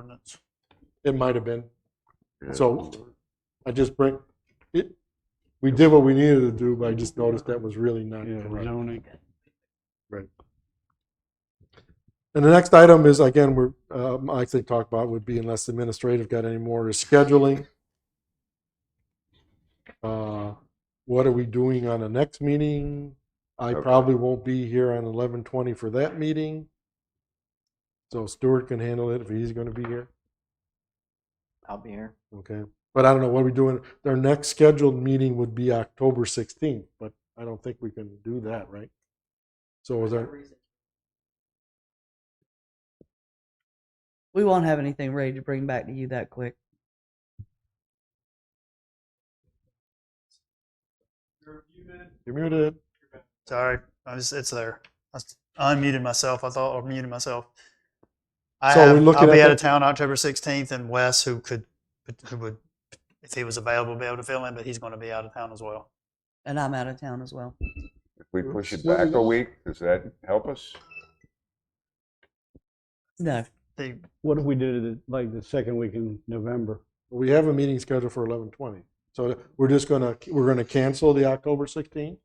minutes. It might have been. So I just bring, it, we did what we needed to do, but I just noticed that was really not Yeah, correct. zoning. And the next item is, again, we're, um, I think talk about would be unless administrative got any more, is scheduling. Uh, What are we doing on the next meeting? I Okay. probably won't be here on eleven twenty for that meeting. So Stuart can handle it if he's gonna be here, I'll be here. okay? But I don't know what we're doing. Their next scheduled meeting would be October sixteenth, but I don't think we can do that, right? So is there? We won't have anything ready to bring back to you that quick. You're muted. Sorry, I was, it's there. I s- I unmuted myself. I thought I muted myself. I So are we have, looking I'll at be out the- of town October 16th, and Wes, who could, who would, if he was available, be able to fill in, but he's going to be out of town as well. And I'm out of town as well. If we push it back a week, does that help us? No. The, What if we did it like the second week in November? We have a meeting scheduled for eleven twenty, so we're just gonna, we're gonna cancel the October sixteenth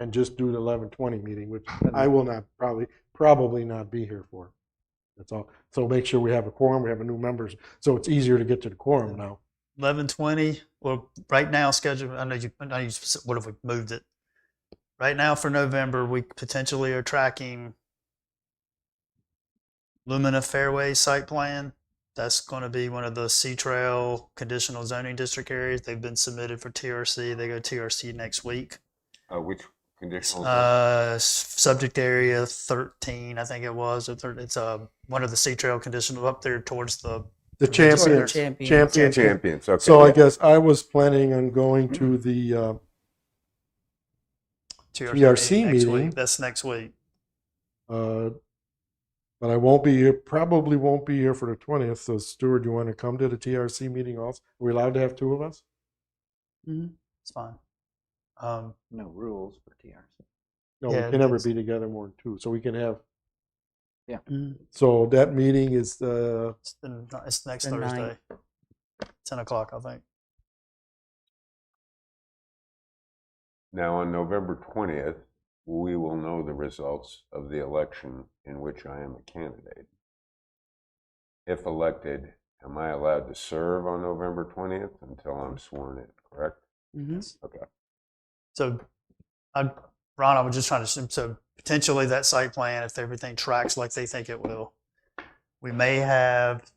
and just do the eleven twenty meeting, which I will not probably, probably not be here for. That's all. So make sure we have a quorum, we have a new members, so it's easier to get to the quorum now. 11:20. Well, right now scheduled. I know you. I know you. s- What if we moved it? Right now for November, we potentially are tracking Lumina Fairway site plan. That's going to be one of the Sea Trail conditional zoning district areas. They've been submitted for TRC. They go TRC next week. Uh, which conditional? Uh, s- subject area 13, I think it was. Or thir it's uh, one of the Sea Trail conditional up there towards the. The champions, Champions. champions. Champions, okay. So I guess I was planning on going to the, uh, TRC, TRC next meeting. Week. That's next week. uh, but I won't be here, probably won't be here for the twentieth, so Stuart, you wanna come to the TRC meeting also? Are we allowed to have two of us? It's fine. Um, No rules for TRC. No, we Yeah, can never that's- be together more than two. So we can have. Mm. So that meeting is uh, it's, the, n- it's next The Thursday, ninth. ten o'clock, I think. Now, on November 20th, we will know the results of the election in which I am a candidate. If elected, am I allowed to serve on November 20th until I'm sworn in, correct? hmm Okay. So, I, Ron, I was just trying to assume, so potentially that site plan, if everything tracks like they think it will, we may have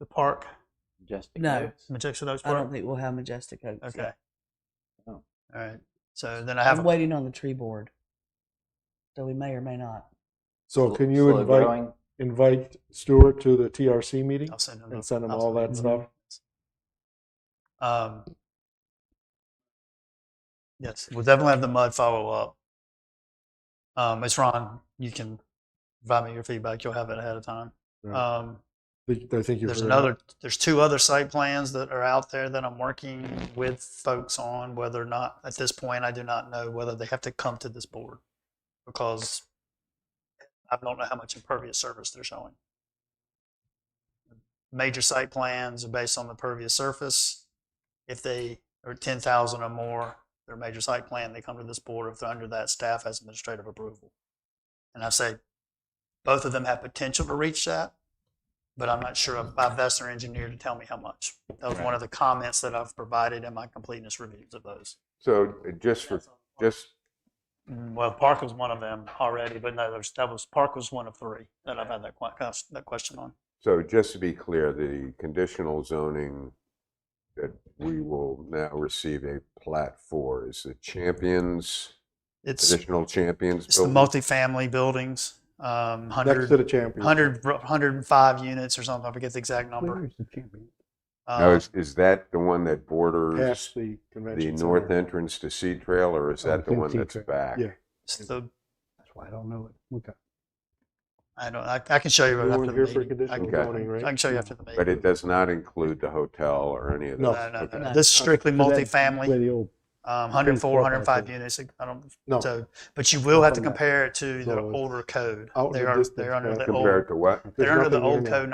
the park, Just No. because. Majection Oaks I Park. don't think we'll have Majestic Oaks. yet. okay. Oh. All right. So then I have I'm a waiting on the tree board. So we may or may not. so. Sl- Can you slow invite growing. invite Stuart to the TRC meeting I'll send them and the- send him I'll all that send stuff? them- Um, yes, we'll definitely have the mud follow up. Um, it's Ron. You can provide me your feedback. You'll have it ahead of time. Yeah. Um, I think- I think you've there's heard that. another. There's two other site plans that are out there that I'm working with folks on. Whether or not at this point, I do not know whether they have to come to this board because I don't know how much impervious surface they're showing. Major site plans are based on the pervious surface. If they are ten thousand or more, their major site plan, they come to this board. If they're under that, staff has administrative approval. And I say, both of them have potential to reach that, but I'm not sure if I've asked their engineer to tell me how much. That was one of the comments that I've provided in my completeness reviews of those. So uh, just for, just, Mm, Well, Park was one of them already, but no, there's, that was, Park was one of three that I've had that que- cus- that question on. so just to be clear, the conditional zoning that we will now receive a plat for is the Champions, It's, additional Champions it's the building? multifamily buildings, um, next to hundred, the champion. hundred, hundred and five units or something, I forget the exact number. Where's the champion? Now, Um, is, is that the one that borders past the the convention. center. north entrance to Sea Trail, or is I that the think one Sea that's Trail. back? Yeah. it's the, That's why I don't know it. Okay. I don't, I, I can show you You after weren't here for the meeting. I conditional can- zoning, right? I can show you after the meeting. But it does not include the hotel or any of No. that? No, no, Okay. no, Okay. no. This is strictly So that's Where multifamily, the old, um, 104, Tennis court back 105 there. units. I don't, No. so, but you will have to From that. compare it to the So it's older code. out in They the are, distance they're under back the there. old, Compared to what? There's they're under the nothing old there now. code